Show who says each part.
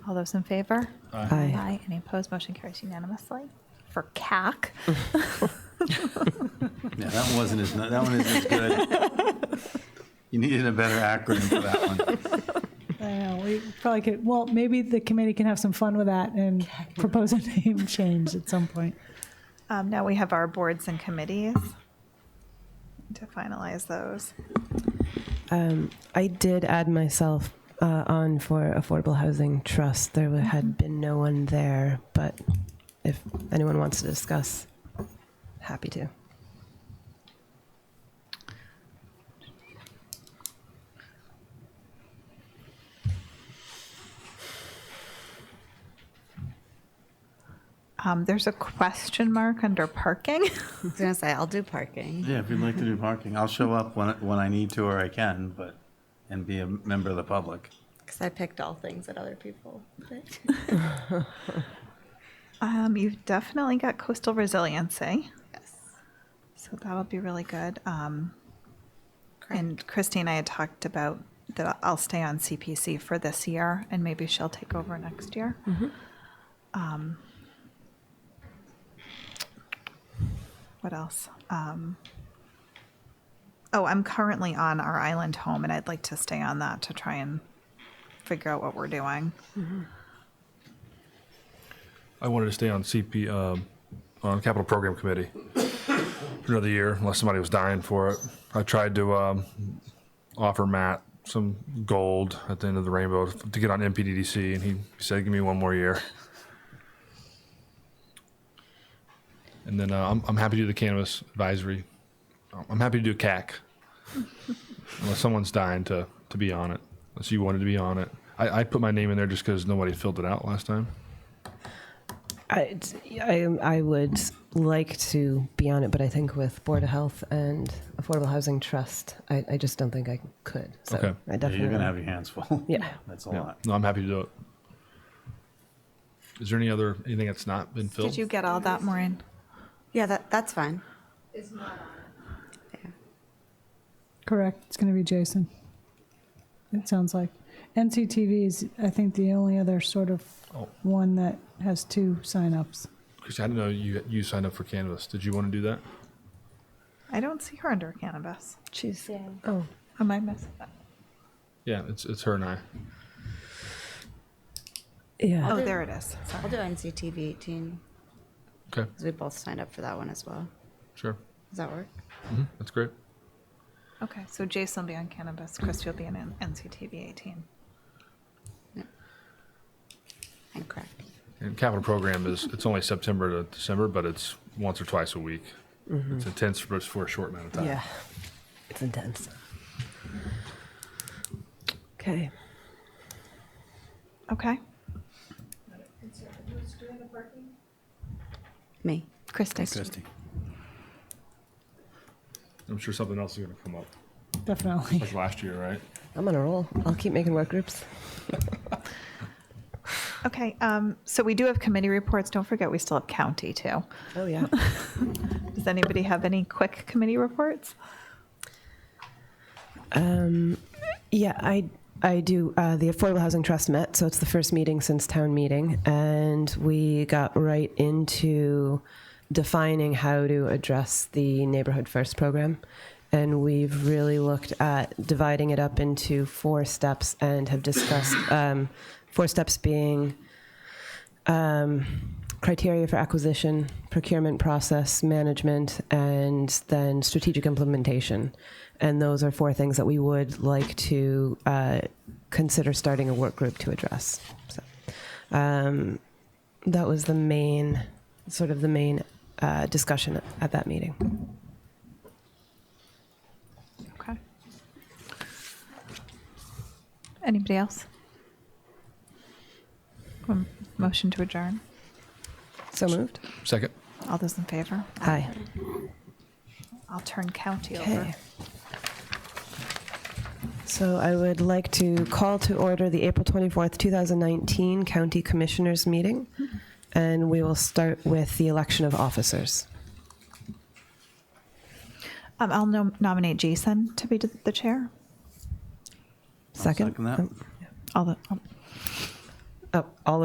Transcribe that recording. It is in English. Speaker 1: All those in favor?
Speaker 2: Aye.
Speaker 1: Any opposed? Motion carries unanimously. For CAC,
Speaker 3: Yeah, that wasn't as, that one isn't as good. You needed a better acronym for that one.
Speaker 4: I know, we probably could, well, maybe the committee can have some fun with that and propose a name change at some point.
Speaker 1: um, now we have our boards and committees to finalize those.
Speaker 2: Um, I did add myself uh, on for Affordable Housing Trust. There wa- had been no one there, but if anyone wants to discuss, happy to.
Speaker 1: Um, there's a question mark under parking.
Speaker 5: I was gonna say, I'll do parking.
Speaker 3: Yeah, if you'd like to do parking, I'll show up when, when I need to or I can, but, and be a member of the public.
Speaker 5: Because I picked all things that other people picked.
Speaker 1: Um, you've definitely got coastal resiliency,
Speaker 5: Yes.
Speaker 1: so that'll be really good. Um, and Christine, I had talked about that I'll stay on CPC for this year, and maybe she'll take over next year. Um, what else? Um, oh, I'm currently on our island home, and I'd like to stay on that to try and figure out what we're doing.
Speaker 6: I wanted to stay on CP, um, on Capital Program Committee for another year, unless somebody was dying for it. I tried to um, offer Matt some gold at the end of the rainbow to get on MPDDC, and he said, "Give me one more year." And then uh, I'm, I'm happy to do the cannabis advisory. I'm happy to do CAC, unless someone's dying to to be on it. Unless you wanted to be on it, I, I put my name in there just because nobody filled it out last time.
Speaker 2: I, I, I would like to be on it, but I think with Board of Health and Affordable Housing Trust, I, I just don't think I could. So
Speaker 6: Okay.
Speaker 2: I
Speaker 3: Yeah,
Speaker 2: definitely.
Speaker 3: You're gonna have your hands full.
Speaker 2: Yeah.
Speaker 3: That's a lot.
Speaker 6: No, I'm happy to do it. Is there any other, anything that's not been filled?
Speaker 1: Did you get all that, Maureen?
Speaker 5: Yeah, that, that's fine.
Speaker 4: Correct, it's going to be Jason. It sounds like. NCTV is, I think, the only other sort of
Speaker 6: Oh.
Speaker 4: one that has two signups.
Speaker 6: Chris, I didn't know you, you signed up for Canvas. Did you want to do that?
Speaker 1: I don't see her under cannabis.
Speaker 2: She's, oh,
Speaker 1: Am I missing that?
Speaker 6: Yeah, it's, it's her and I.
Speaker 2: yeah.
Speaker 1: Oh, there it is. Sorry.
Speaker 5: I'll do NCTV 18
Speaker 6: Okay,
Speaker 5: because we both signed up for that one as well.
Speaker 6: sure.
Speaker 5: Does that work?
Speaker 6: hmm that's great.
Speaker 1: Okay, so Jason will be on cannabis, Chris will be on N- NCTV 18.
Speaker 5: And correct.
Speaker 6: And capital program is, it's only September to December, but it's once or twice a week.
Speaker 1: Mm-hmm.
Speaker 6: It's intense for, it's for a short amount of
Speaker 3: Oh.
Speaker 6: time.
Speaker 2: Yeah. It's intense. Okay.
Speaker 1: Okay,
Speaker 5: Me.
Speaker 1: Kristen.
Speaker 3: Christie.
Speaker 6: I'm sure something else is going to come up,
Speaker 4: Definitely.
Speaker 6: like last year, right?
Speaker 2: I'm on a roll. I'll keep making work groups.
Speaker 1: Okay, um, so we do have committee reports. Don't forget, we still have county too.
Speaker 2: Oh, yeah.
Speaker 1: Does anybody have any quick committee reports?
Speaker 2: Um, yeah, I I do. Uh, the Affordable Housing Trust met, so it's the first meeting since town meeting, and we got right into defining how to address the Neighborhood First program, and we've really looked at dividing it up into four steps, and have discussed um, four steps being um, criteria for acquisition, procurement process, management, and then strategic implementation. And those are four things that we would like to uh, consider starting a work group to address. So, um, that was the main, sort of the main uh, discussion at, at that meeting.
Speaker 1: Okay. Anybody else? Um, Motion to adjourn.
Speaker 2: So moved.
Speaker 6: Second.
Speaker 1: All those in favor?
Speaker 2: Aye.
Speaker 1: I'll turn county over.
Speaker 2: Okay. So I would like to call to order the April 24th, 2019 County Commissioners Meeting, and we will start with the election of officers.
Speaker 1: Um, I'll nom- nominate Jason to be th- the chair.
Speaker 2: Second?
Speaker 3: Second that.
Speaker 2: Oh,
Speaker 1: All the, um,
Speaker 2: Oh, all